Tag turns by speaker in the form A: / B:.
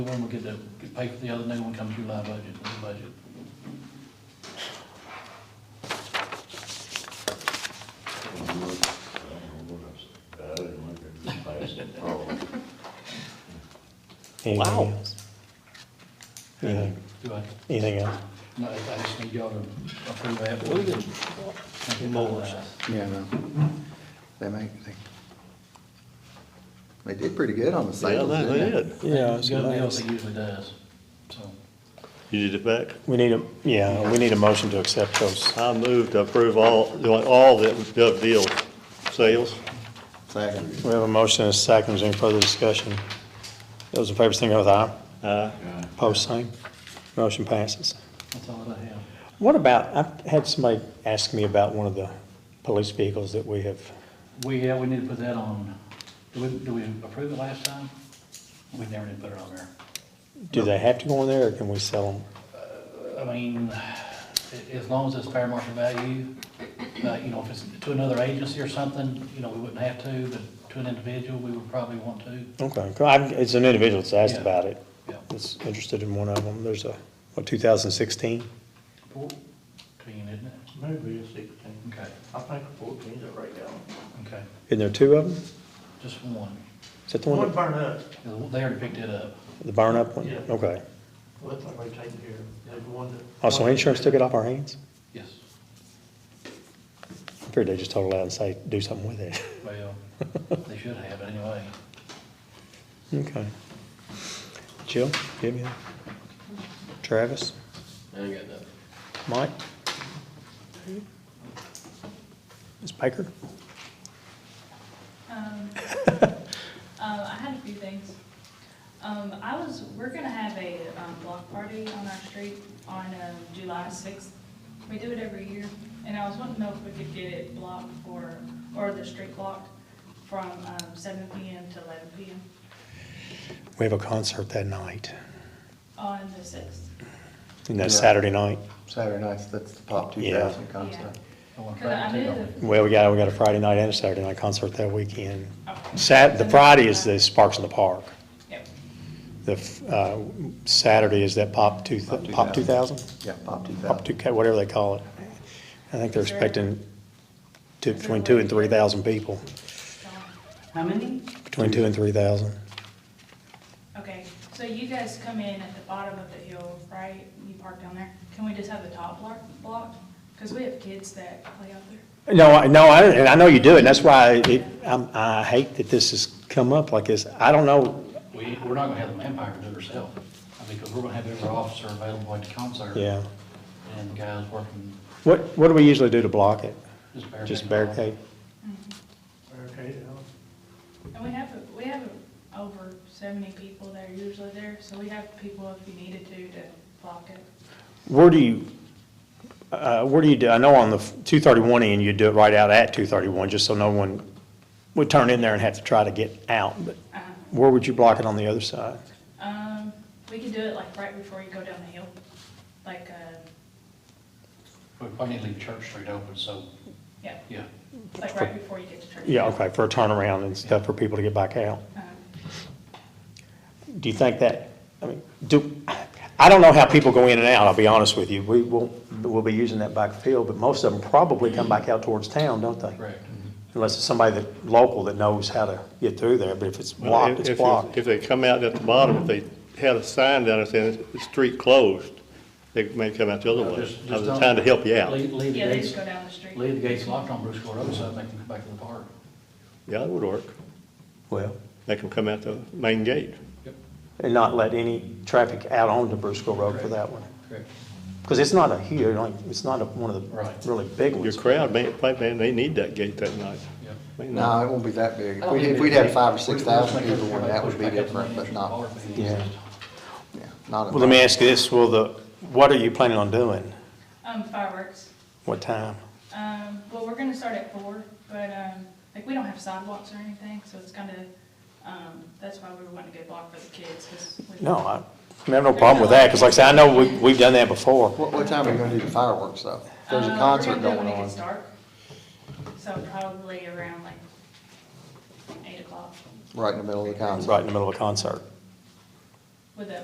A: One will get the, get paid for the other, new one comes through live budget, new budget.
B: Anything
C: Wow.
B: else? Anything,
A: Do I,
B: anything else?
A: no, I just need y'all to approve that. What is it?
B: Mowers.
D: Yeah, no. They make, they, they did pretty good on the
E: Yeah,
D: sales,
E: they
D: didn't they?
E: did.
C: Yeah, it's
A: Government else
C: nice.
A: it usually does, so.
E: You did it back.
B: We need a, yeah, we need a motion to accept those.
E: I move to approve all, doing all the gov deal sales.
D: Second.
B: We have a motion and a second. Is there any further discussion? Those in favor, sing with aye.
E: Uh,
B: Post same. Motion passes.
A: That's all that I have.
B: What about, I've had somebody ask me about one of the police vehicles that we have.
A: We, yeah, we need to put that on, do we, do we approve it last time? We never did put it on there.
B: Do they have to go in there or can we sell them?
A: I mean, a- as long as it's fair market value, uh, you know, if it's to another agency or something, you know, we wouldn't have to, but to an individual, we would probably want to,
B: Okay, 'cause I've- it's an individual that's asked
A: Yeah.
B: about it.
A: yeah.
B: That's interested in one of them. There's a, what, 2016?
A: Fourteen, isn't it?
F: Maybe it's sixteen.
A: Okay,
F: I think fourteen's it right now.
A: okay,
B: Isn't there two of them?
A: just one.
B: Is that the
F: One
B: one,
F: burn up,
A: They already picked it up.
B: that- the barn up one?
F: Yeah.
B: Okay.
F: well, that's already taken care of. There's one that.
B: Also, Oh, insurance took it off our hands?
A: Yes.
B: I figured they just told it out and say, do something with it.
A: Well, they should have it anyway.
B: Okay. Jill, give me that. Travis? I got nothing. Mike? Ms. Baker?
G: Um, uh, I had a few things. Um, I was, we're gonna have a, um, block party on our street on, um, July sixth. We do it every year, and I was wanting to know if we could get it blocked for, or the street blocked from, um, seven P M to eleven P M
B: We have a concert that night,
G: on the sixth.
B: and that's
D: Yeah.
B: Saturday night.
D: Saturday nights, that's the Pop two
B: Yeah.
D: thousand concert.
A: want
G: Cause I knew the,
B: Well, we got, we got a Friday night and a Saturday night concert that weekend.
G: okay.
B: Sat, the Friday is the Sparks in the Park.
G: Yep.
B: The, f- uh, Saturday is that Pop two,
D: Pop
B: Pop two thousand?
D: Yeah, Pop two
B: Up to,
D: thousand.
B: ca- whatever they call it. I think they're
G: Is there-
B: expecting two, between two and three thousand people,
H: How many?
B: between two and three thousand.
G: Okay, so you guys come in at the bottom of the hill, right? You park down there. Can we just have the top block blocked? Cause we have kids that play out there.
B: No, I, no, I, and I know you do, and that's why it, I'm, I hate that this has come up like this. I don't know,
A: We, we're not gonna have the manpower to do it ourselves, I mean, because we're gonna have every officer available at the concert.
B: yeah.
A: And the guys working,
B: What, what do we usually do to block it?
A: just barricade.
B: Just barricade?
F: Okay, yeah.
G: And we have, we have over seventy people that are usually there, so we have people if you needed to, to block it.
B: Where do you, uh, where do you do, I know on the two thirty-one end, you do it right out at two thirty-one, just so no one would turn in there and have to try to get out, but
G: Uh,
B: where would you block it on the other side?
G: Um, we could do it like right before you go down the hill, like, uh,
A: We probably need to leave Church Street open, so,
G: yeah,
A: yeah.
G: like right before you get to church.
B: Yeah, okay, for a turnaround and stuff for people to get back out.
G: Uh,
B: Do you think that, I mean, do, I don't know how people go in and out, I'll be honest with you. We will, we'll be using that back field, but most of them probably come back out towards town, don't they?
A: Correct.
E: Mm-hmm.
B: Unless it's somebody that, local that knows how to get through there, but if it's blocked,
E: if-
B: it's
E: if-
B: blocked.
E: If they come out at the bottom, if they had a sign down there saying, "It's- it's street closed, they may come out the other way.
A: Just-
E: I was
A: just don't-
E: trying to help you out.
A: Leave, leave the
G: Yeah, they just
A: gates,
G: go down the street.
A: leave the gates locked on Bruce Court Road, so I think we can go back to the park.
E: Yeah, that would work.
B: Well.
E: Make them come out the main gate.
B: And not let any traffic out onto Brusco Road for
A: Correct.
B: that one.
A: Correct.
B: Because it's not a huge, like, it's not a, one of
A: Right.
B: the really big
E: Your
B: ones.
E: crowd, may may- may- they need that gate that night.
A: Yep.
E: May not.
D: No, it won't be that big. If
G: Oh,
D: we- If we'd had five or six thousand people, well, that would be different, but not,
B: Yeah.
D: yeah, not.
B: Well, let me ask you this, will the, what are you planning on doing?
G: Um, fireworks.
B: What time?
G: Um, well, we're gonna start at four, but, um, like, we don't have sidewalks or anything, so it's kinda, um, that's why we want to go block for the kids, 'cause we-
B: No, I I have no problem with that, because like I said, I know we, we've done that before.
D: What, what time are we gonna do the fireworks though? There's a
G: Uh,
D: concert
G: we're gonna do it
D: going
G: when it
D: on.
G: gets dark. So probably around like eight o'clock.
D: Right in the middle of the concert.
B: Right in the middle of a concert.
G: with a